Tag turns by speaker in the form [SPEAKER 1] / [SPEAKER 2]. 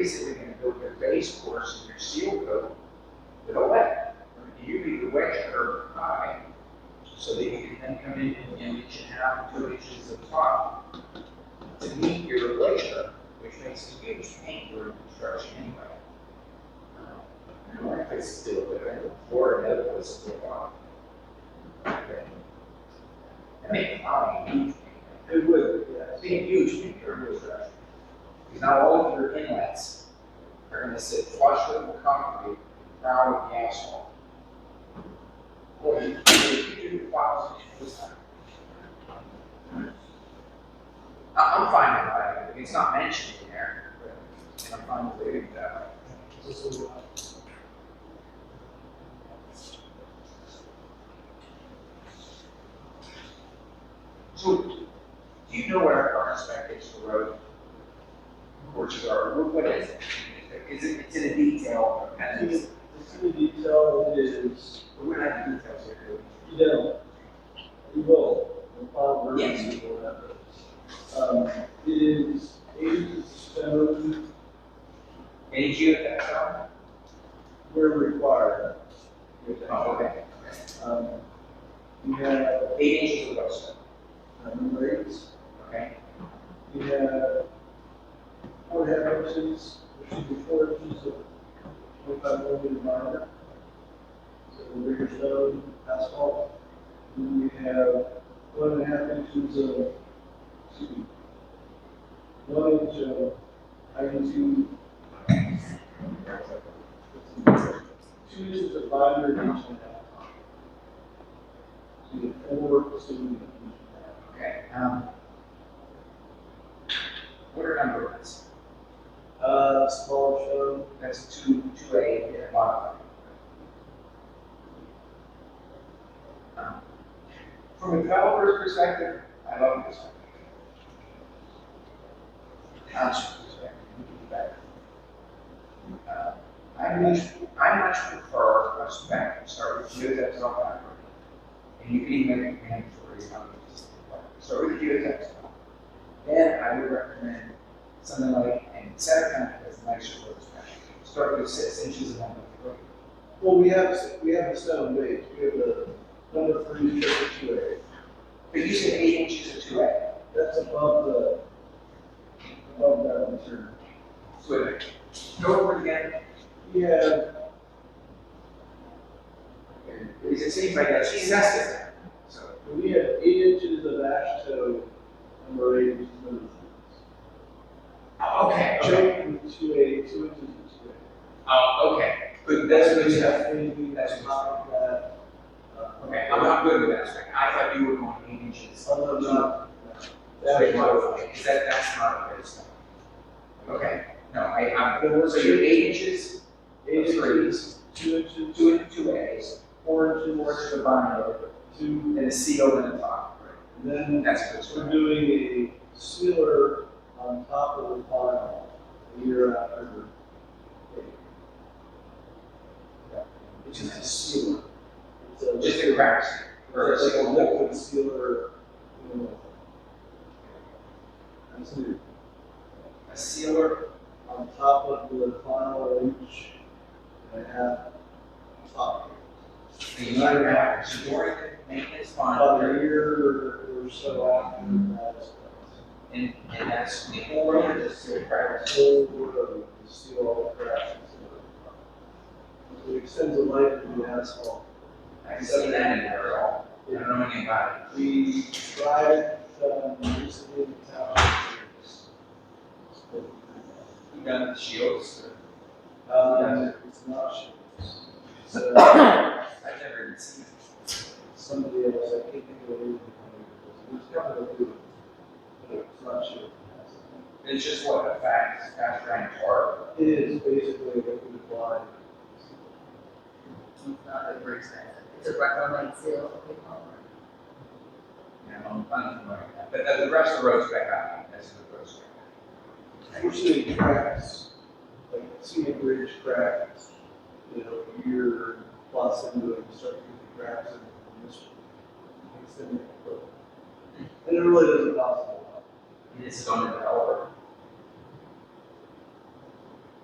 [SPEAKER 1] basically gonna build their base course and their seal coat with a wet. You need the wet curb high, so that you can then come in and an inch and a half, two inches of top to meet your glacier, which makes a huge pain during construction anyway. I don't know if it's still there, I looked for it, it was still on. I mean, I mean, it would, yeah, it'd be a huge thing for construction. Because now all of your inlets are gonna sit flush with the concrete, crown with the asphalt. Well, you you do the files this time. I, I'm fine with that, I mean, it's not mentioned in there, but- and I'm fine with leaving it that way. So, do you know what our current spec is for road courses are, What- what is it? Is it, it's in a detail, and it's,
[SPEAKER 2] The city detail is,
[SPEAKER 1] but we're not in details here, do
[SPEAKER 2] you know, you will, the final version
[SPEAKER 1] Yes.
[SPEAKER 2] you will have it. Um, it is eight stone
[SPEAKER 1] we? Any geotech on
[SPEAKER 2] where required.
[SPEAKER 1] Oh, okay.
[SPEAKER 2] Um, we have,
[SPEAKER 1] Eight inches of roadstone,
[SPEAKER 2] uh, number eight,
[SPEAKER 1] okay?
[SPEAKER 2] we have four half inches, there should be four inches of twenty-five millimeter minor. So the bigger stone, asphalt, and we have one and a half inches of, excuse me, one inch of, I can do two inches of binder, an inch and a half. So you get four, so you get an inch and a half.
[SPEAKER 1] Okay, um. What are number ones?
[SPEAKER 2] Uh, small stone,
[SPEAKER 1] That's two, two A, and a bottom. Um, From a developer's perspective, I love this one. Township's perspective, we can do better. Uh, I much, I much prefer a spec, start with geotech cell fiber. And you can even make a hand for it, um, start with geotech cell. Then I would recommend something like, and Sarah kind of has a nice short span. Start with six inches and then go
[SPEAKER 2] Well, we have, we have the stone base, we have the number three, number two A,
[SPEAKER 1] But you said eight inches or two A.
[SPEAKER 2] that's above the, above that concern.
[SPEAKER 1] So wait, go over again.
[SPEAKER 2] We have,
[SPEAKER 1] Because it seems like that's excessive. So,
[SPEAKER 2] we have eight inches of ash toe, number eight, which is number three.
[SPEAKER 1] okay, okay.
[SPEAKER 2] Choke with two A, two inches of two A.
[SPEAKER 1] Oh, okay. But that's what you have.
[SPEAKER 2] Anything that's not like that. uh,
[SPEAKER 1] Okay, I'm not good with that aspect. I thought you were going eight inches.
[SPEAKER 2] Other than that,
[SPEAKER 1] That's
[SPEAKER 2] that's-
[SPEAKER 1] modified, because that, that's not a good step. Okay, no, I, I'm, so you're eight inches,
[SPEAKER 2] Eight inches,
[SPEAKER 1] threes,
[SPEAKER 2] two inches,
[SPEAKER 1] two, in- two A's,
[SPEAKER 2] four inches,
[SPEAKER 1] four inches of binder,
[SPEAKER 2] two,
[SPEAKER 1] and a CO in the top, right?
[SPEAKER 2] and then
[SPEAKER 1] That's what's
[SPEAKER 2] We're
[SPEAKER 1] going
[SPEAKER 2] doing a sealer on top of the pile a year after.
[SPEAKER 1] which is a sewer.
[SPEAKER 2] It's a-
[SPEAKER 1] Just a crack or a
[SPEAKER 2] It's like a
[SPEAKER 1] single liquid.
[SPEAKER 2] liquid sealer, you know. That's new.
[SPEAKER 1] A sealer,
[SPEAKER 2] On top of the pile inch and a half top.
[SPEAKER 1] the united matters, during the maintenance
[SPEAKER 2] About a
[SPEAKER 1] bond,
[SPEAKER 2] year or so after that.
[SPEAKER 1] and, and that's the whole room is just a crack.
[SPEAKER 2] Whole road, to seal all the cracks and stuff. It extends the life of the asphalt.
[SPEAKER 1] I can see that in there at all. I don't know anything about
[SPEAKER 2] We tried, um, recently in town.
[SPEAKER 1] it. You done the shields?
[SPEAKER 2] Um, it's not sure. So,
[SPEAKER 1] I've never even seen it.
[SPEAKER 2] somebody else, I can't think of the name. It's kind of a good, but it's not sure.
[SPEAKER 1] It's just what a fact, it's got granite tar.
[SPEAKER 2] It is basically a liquid blind.
[SPEAKER 3] It's not a great sign. It's a recommend seal.
[SPEAKER 1] You know, I'm unfamiliar with that. But the, the rest of the road's back out, that's the road's back out.
[SPEAKER 2] Usually cracks, like scenic bridge cracks, you know, a year plus into it, you start getting cracks and this extended. And it really doesn't cost a lot.
[SPEAKER 1] And This is on the developer.